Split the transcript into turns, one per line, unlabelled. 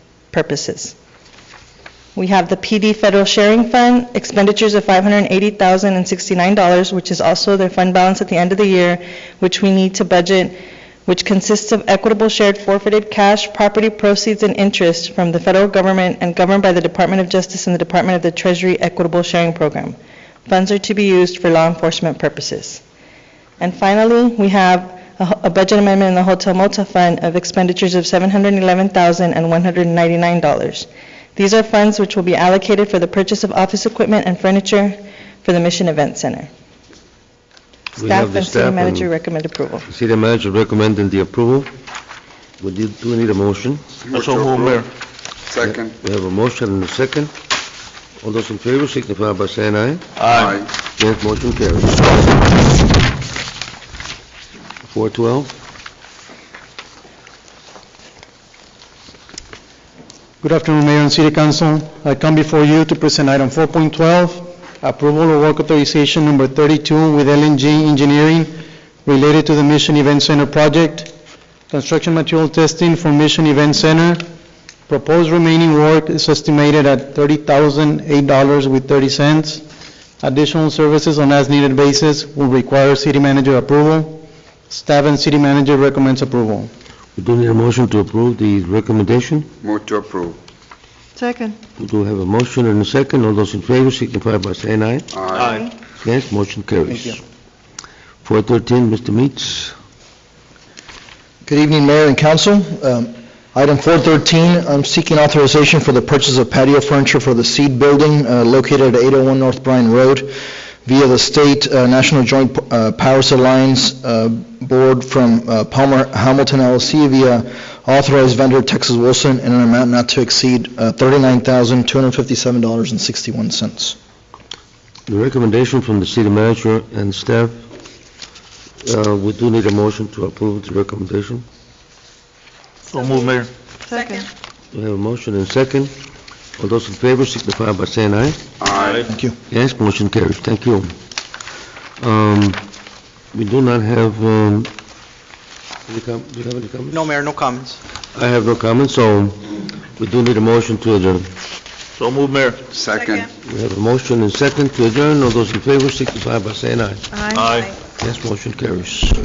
purposes. We have the PD Federal Sharing Fund, expenditures of $580,069, which is also their fund balance at the end of the year, which we need to budget, which consists of equitable shared forfeited cash, property proceeds, and interest from the federal government and governed by the Department of Justice and the Department of the Treasury Equitable Sharing Program. Funds are to be used for law enforcement purposes. And finally, we have a a budget amendment in the Hotel Motel Fund of expenditures of $711,199. These are funds which will be allocated for the purchase of office equipment and furniture for the Mission Event Center.
We
Staff
have the
and city
staff
manager
and
recommend approval.
city manager recommending the approval. We do do we need a motion.
Also move, Mayor. Second.
We have a motion and a second. All those in favor signify by saying aye.
Aye.
Yes, motion carries. 412,
Good afternoon, Mayor and City Council. I come before you to present item 4.12, approval of work authorization number 32 with LNG Engineering related to the Mission Event Center project, construction material testing for Mission Event Center. Proposed remaining work is estimated at $30,008 with 30 cents. Additional services on as-needed basis will require city manager approval. Staff and city manager recommends approval.
we do need a motion to approve the recommendation.
Move to approve.
Second.
We do have a motion and a second. All those in favor signify by saying aye.
Aye.
Yes, motion carries.
Thank you.
413, Mr. Meats.
Good evening, Mayor and Council. Um, Item 413, I'm seeking authorization for the purchase of patio furniture for the Seed Building uh, located at 801 North Bryan Road via the State uh, National Joint uh, Powers Alliance uh, Board from uh, Palmer Hamilton LLC via authorized vendor Texas Wilson in an amount not to exceed uh, $39,257.61.
The recommendation from the city manager and staff, uh, we do need a motion to approve the recommendation.
So move, Mayor.
Second.
We have a motion and second. All those in favor signify by saying aye.
Aye.
Thank you.
Yes, motion carries. Thank you. Um, We do not have, um, any com- do you have any comments?
No, Mayor, no comments.
I have no comments, so we do need a motion to adjourn.
So move, Mayor. Second.
We have a motion and second to adjourn. All those in favor signify by saying aye.
Aye.
Yes, motion carries.